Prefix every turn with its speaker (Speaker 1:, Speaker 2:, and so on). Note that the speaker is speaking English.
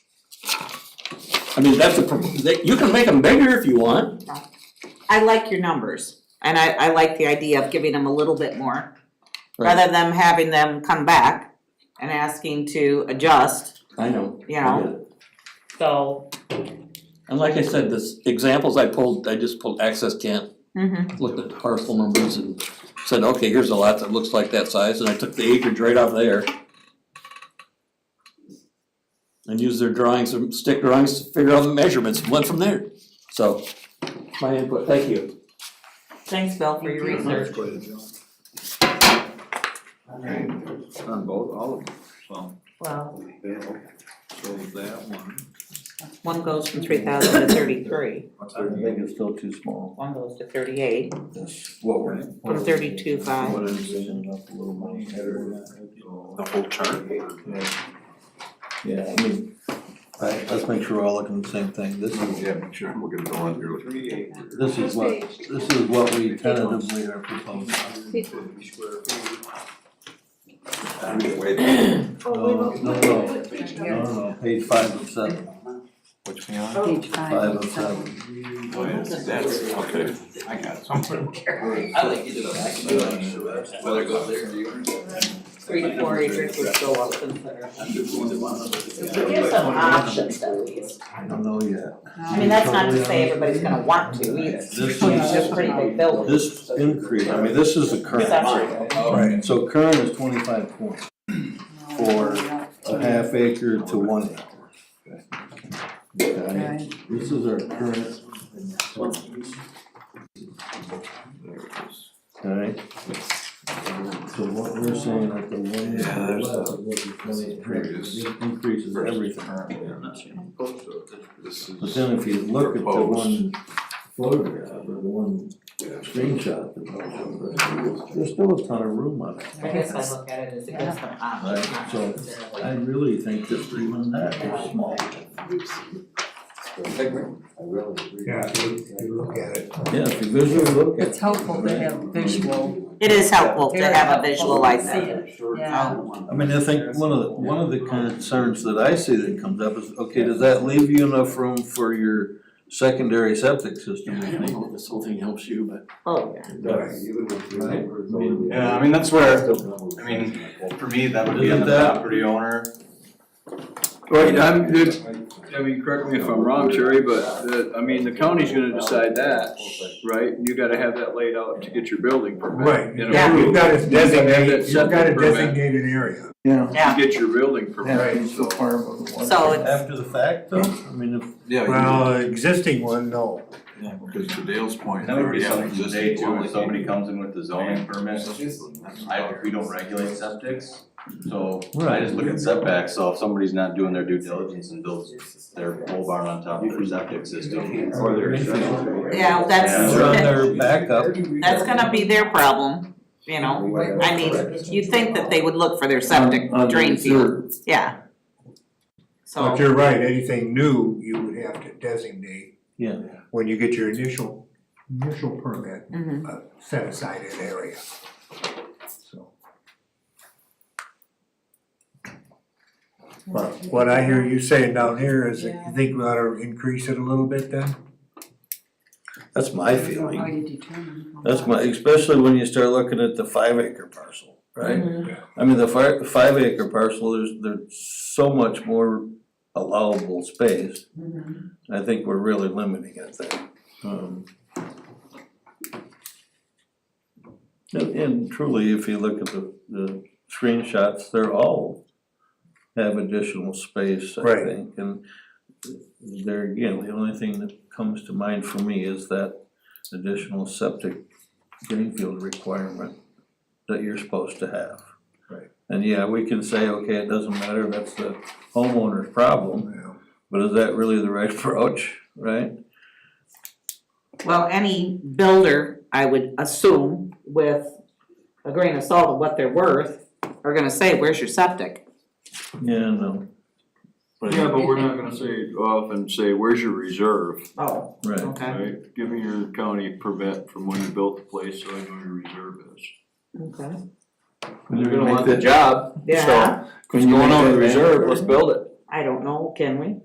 Speaker 1: I mean, that's a, pro- they- you can make them bigger if you want.
Speaker 2: I like your numbers, and I, I like the idea of giving them a little bit more,
Speaker 1: Right.
Speaker 2: rather than having them come back and asking to adjust,
Speaker 1: I know.
Speaker 2: you know, so.
Speaker 1: And like I said, this examples I pulled, I just pulled access camp,
Speaker 2: mhm.
Speaker 1: looked at the parcel numbers and said, okay, here's a lot that looks like that size, and I took the acreage right off there. And used their drawings, some stick drawings to figure out the measurements, and went from there. So, my input, thank you.
Speaker 2: Thanks, Bill, for your research.
Speaker 3: Alright,
Speaker 4: On both, all of them, so,
Speaker 2: Well,
Speaker 4: so that one.
Speaker 2: one goes from three thousand to thirty-three,
Speaker 5: I think it's still too small,
Speaker 2: one goes to thirty-eight,
Speaker 5: that's what we're.
Speaker 2: from thirty-two five.
Speaker 5: What I'm saying, up a little more header.
Speaker 4: The whole chart?
Speaker 5: Yeah, I mean, alright, let's make sure we're all looking at the same thing, this is,
Speaker 3: Yeah, make sure we're gonna go on here with.
Speaker 4: Three acres.
Speaker 5: this is what, this is what we tentatively are proposing.
Speaker 3: I'm gonna wait.
Speaker 5: No, no, "Oh, no, no, no, page five of seven,
Speaker 3: Which we on?
Speaker 4: Oh.
Speaker 6: Page
Speaker 5: five of seven,
Speaker 3: Oh, yes, that's, okay, I got it somewhere.
Speaker 4: I like either of them. Whether it goes there or yours.
Speaker 2: Three to four acres would go up considerably.
Speaker 4: There's
Speaker 2: There's some options at least,
Speaker 5: I don't know yet.
Speaker 2: I mean, that's not to say everybody's gonna want to either,
Speaker 5: This
Speaker 2: you know,
Speaker 5: is,
Speaker 2: they're pretty big buildings.
Speaker 5: this increase, I mean, this is the current,
Speaker 2: Accessory.
Speaker 5: right, so current is twenty-five point, for a half acre to one acre. Okay, this is our current. Alright. So what we're saying at the one acre
Speaker 3: Yeah, there's the-
Speaker 5: level, what we're saying,
Speaker 3: Previous.
Speaker 5: it increases everything.
Speaker 4: Oh,
Speaker 3: This
Speaker 5: But
Speaker 3: is.
Speaker 5: then if you look at the
Speaker 3: Proposed.
Speaker 5: one photograph or the one screenshot, that was over, there's still a ton of room on it.
Speaker 2: I guess I look at it as it gives them options,
Speaker 5: Right,
Speaker 2: not
Speaker 5: so-
Speaker 2: necessarily.
Speaker 5: I really think that even that is small.
Speaker 7: Yeah, you, you look at it.
Speaker 5: Yeah, if you visually look at.
Speaker 6: It's helpful to have visual,
Speaker 2: It is helpful to have a visual
Speaker 6: Very
Speaker 2: like
Speaker 6: helpful.
Speaker 2: that.
Speaker 6: yeah.
Speaker 5: I mean, I think one of the, one of the concerns that I see that comes up is, okay, does that leave you enough room for your secondary septic system?
Speaker 1: I don't know if this whole thing helps you, but.
Speaker 2: Oh, yeah.
Speaker 3: Yeah, I mean, that's where, I mean, for me, that would be on the
Speaker 5: Isn't that-
Speaker 3: property owner.
Speaker 4: Right, I'm, it- I mean, correct me if I'm wrong, Terry, but the, I mean, the county's gonna decide that, right? You gotta have that laid out to get your building permit.
Speaker 7: Right,
Speaker 4: You know,
Speaker 7: you've
Speaker 2: Yeah.
Speaker 4: you
Speaker 7: got to
Speaker 4: gotta have that
Speaker 7: designate, you've got to
Speaker 4: septic permit
Speaker 7: designate an area.
Speaker 5: Yeah.
Speaker 2: Yeah.
Speaker 4: To get your building permit, so.
Speaker 2: So it's,
Speaker 5: After the fact though, I mean, if,
Speaker 3: Yeah.
Speaker 7: Well, existing one, no.
Speaker 3: Because to Dale's point.
Speaker 8: That would be
Speaker 3: they already have
Speaker 8: something today too,
Speaker 3: existing
Speaker 8: when somebody comes in with the zoning permit, I, we don't regulate septics. So I just look at setbacks, so if somebody's not doing their due diligence and builds their pole barn on top of their septic system.
Speaker 4: Or their accessory.
Speaker 2: yeah, that's,
Speaker 5: they're on their backup,
Speaker 2: that's gonna be their problem, you know? I mean, you'd think that they would look for their septic
Speaker 1: On- on the
Speaker 2: drain
Speaker 1: reserve.
Speaker 2: field, yeah.
Speaker 7: But
Speaker 2: So,
Speaker 7: you're right, anything new, you would have to designate.
Speaker 5: Yeah.
Speaker 7: When you get your initial, initial permit,
Speaker 2: mhm.
Speaker 7: uh, set aside an area. So. But what I hear you saying down here is that you think we ought to increase it a little bit then?
Speaker 5: that's my
Speaker 6: How
Speaker 5: feeling.
Speaker 6: you determine. how
Speaker 5: That's my,
Speaker 6: much.
Speaker 5: especially when you start looking at the five acre parcel, right? I mean, the five, five acre parcel, there's, there's so much more allowable space.
Speaker 6: Mhm.
Speaker 5: I think we're really limiting it there. Um, And, and truly, if you look at the, the screenshots, they're all have additional space, I
Speaker 7: Right.
Speaker 5: think, and there again, the only thing that comes to mind for me is that additional septic greenfield requirement that you're supposed to have.
Speaker 7: Right.
Speaker 5: And yeah, we can say, okay, it doesn't matter, that's the homeowner's problem,
Speaker 7: Yeah.
Speaker 5: but is that really the right approach, right?
Speaker 2: Well, any builder, I would assume, with a grain of salt of what they're worth, are gonna say, where's your septic?
Speaker 5: Yeah, no,
Speaker 4: Yeah, but we're not gonna say, often say, where's your reserve,
Speaker 2: Oh,
Speaker 5: right,
Speaker 2: okay,
Speaker 4: right? Give me your county permit from when you built the place, so I know your reserve is.
Speaker 2: okay,
Speaker 4: They're gonna want the job,
Speaker 2: yeah,
Speaker 4: It's going on the reserve, let's build it.
Speaker 2: I don't know, can we?